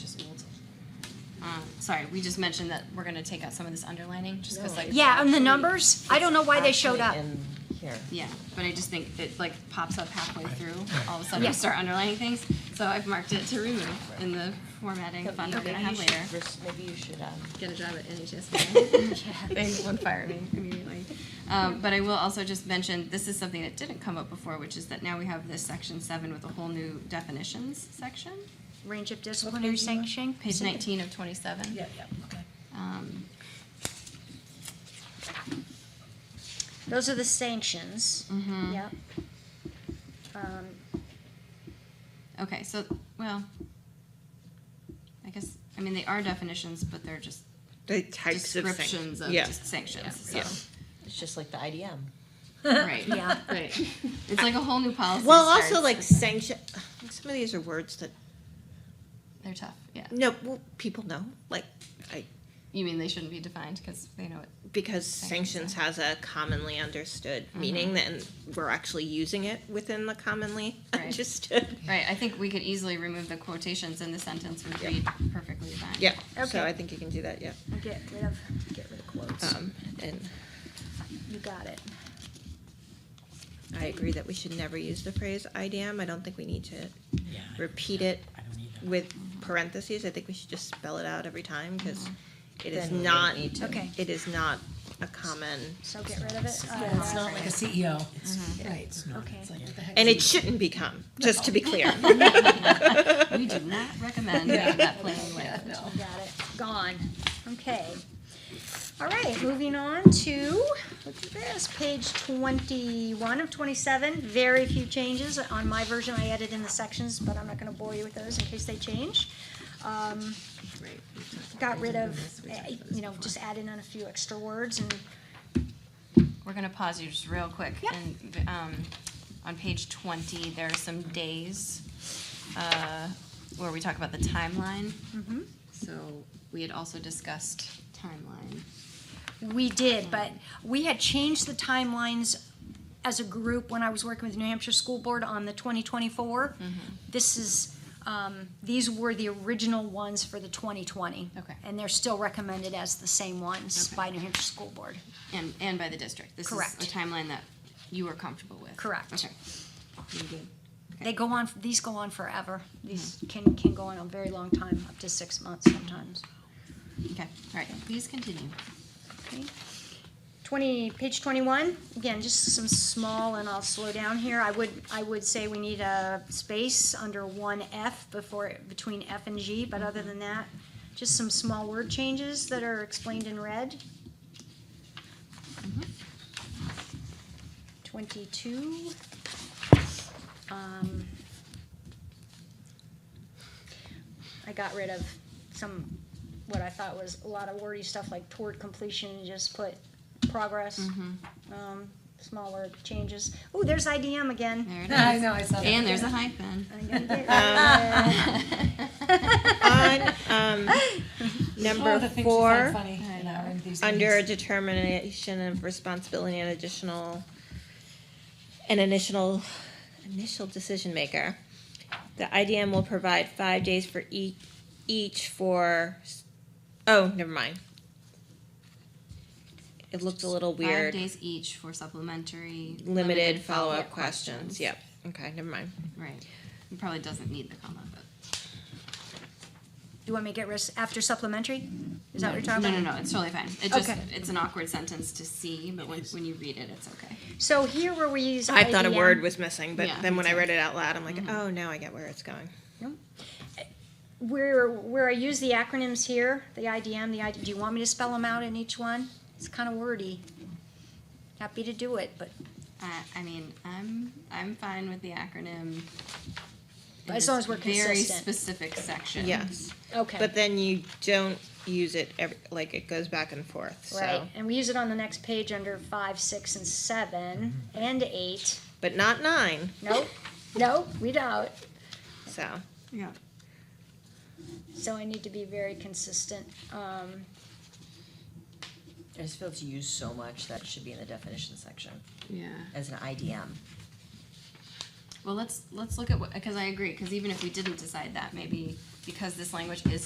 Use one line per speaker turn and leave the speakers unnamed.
um, sorry, we just mentioned that we're gonna take out some of this underlining, just cause like.
Yeah, and the numbers, I don't know why they showed up.
Actually in here.
Yeah, but I just think it like pops up halfway through, all of a sudden
Yeah.
we start underlining things, so I've marked it to remove in the formatting fun we're gonna
Maybe you
have later.
should res- Maybe you should, um,
Get a job at NHS. They would fire me immediately. Um, but I will also just mention, this is something that didn't come up before, which is that now we have this section seven with a whole new definitions section,
Range of disciplinary sanctioning.
page nineteen of twenty-seven.
Yeah, yeah, okay.
Um,
Those are the sanctions.
Mm-hmm.
Mhm.
Yep. Um,
Okay, so, well, I guess, I mean, they are definitions, but they're just
The types of
descriptions
sanctions.
of
Yeah.
just sanctions,
Yeah.
so,
it's just like the IDM.
right,
Yeah.
right. It's like a whole new policy.
Well, also
starts.
like sanction, some of these are words that,
They're tough, yeah.
no, well, people know, like, I,
You mean they shouldn't be defined because they know it?
because
Sanctions Mm-hmm.
sanctions has a commonly understood meaning, and we're actually using it within the commonly
Right.
understood.
Right, I think we could easily remove the quotations and the sentence would read perfectly fine.
Yeah,
Okay.
so I think you can do that, yeah.
get rid of, get rid of quotes.
Um, and
You got it.
I agree that we should never use the phrase IDM. I don't think we need to
Yeah, I-
repeat it
I don't either.
with parentheses. I think we should just spell it out every time because
Mm-hmm.
it is
Then we
not,
need to-
Okay.
it is not a common,
So get rid of it. Uh,
It's not like a CEO, right, it's not,
Okay.
it's like, what the heck?
and it shouldn't become, just to be clear.
We do not recommend making that plain language.
You got it. Gone. Okay. All right, moving on to, look at this, page twenty-one of twenty-seven. Very few changes. On my version, I added in the sections, but I'm not gonna bore you with those in case they change. Um, got rid of, eh, you know, just added in a few extra words and
We're gonna pause you just real quick.
Yep.
And, um, on page twenty, there are some days, uh, where we talk about the timeline. So we had also discussed timeline.
We did, but we had changed the timelines as a group when I was working with New Hampshire School Board on the 2024. This is, um, these were the original ones for the 2020.
Okay.
And they're still recommended as the same ones
Okay.
by New Hampshire School Board.
And, and by the district. This is
Correct.
a timeline that you were comfortable with.
Correct.
Okay. You good?
They go on, these go on forever. These
Hmm.
can, can go on a very long time, up to six months sometimes.
Okay, all right, please continue.
Okay. 20, page 21, again, just some small, and I'll slow down here. I would, I would say we need a space under 1F before, between F and G, but other than that, just some small word changes that are explained in red. 22. Um, I got rid of some, what I thought was a lot of wordy stuff like toward completion and just put progress.
Mm-hmm.
Um, small word changes. Ooh, there's IDM again.
There it
I
is.
know, I saw that.
And there's a hyphen.
I'm gonna get rid of
Uh.
it.
On, um,
Oh,
number
the things she
four,
found funny, you know, and these
under a
things.
determination of responsibility and additional, an initial, initial decision maker. The IDM will provide five days for each, each for, s- oh, never mind. It looked a little
Five
weird.
days each for supplementary.
Limited follow-up questions, yep, okay, never mind.
Right. It probably doesn't need the comma, but.
Do you want me to get rid of after supplementary? Is that what you're talking
No,
about?
no, no, it's totally fine. It just,
Okay.
it's an awkward sentence to see, but when, when you read it, it's okay.
So here where we use
I thought a
IDM
word was missing, but
Yeah,
then
me
when I
too.
read it out loud, I'm like, oh, now I get where it's going.
where where I use the acronyms here, the IDM, the ID. Do you want me to spell them out in each one? It's kind of wordy. Happy to do it, but
Uh, I mean, I'm, I'm fine with the acronym. in
As long
this
as we're
Very
consistent.
specific section.
Yes,
okay.
but then you don't use it every, like, it goes back and forth,
Right,
so.
and we use it on the next page under five, six, and seven, and eight.
But not nine,
Nope, nope, we don't.
so.
Yeah.
So I need to be very consistent. Um,
I just feel it's used so much that it should be in the definition section
Yeah.
as an IDM.
Well, let's, let's look at what, because I agree, because even if we didn't decide that, maybe because this language is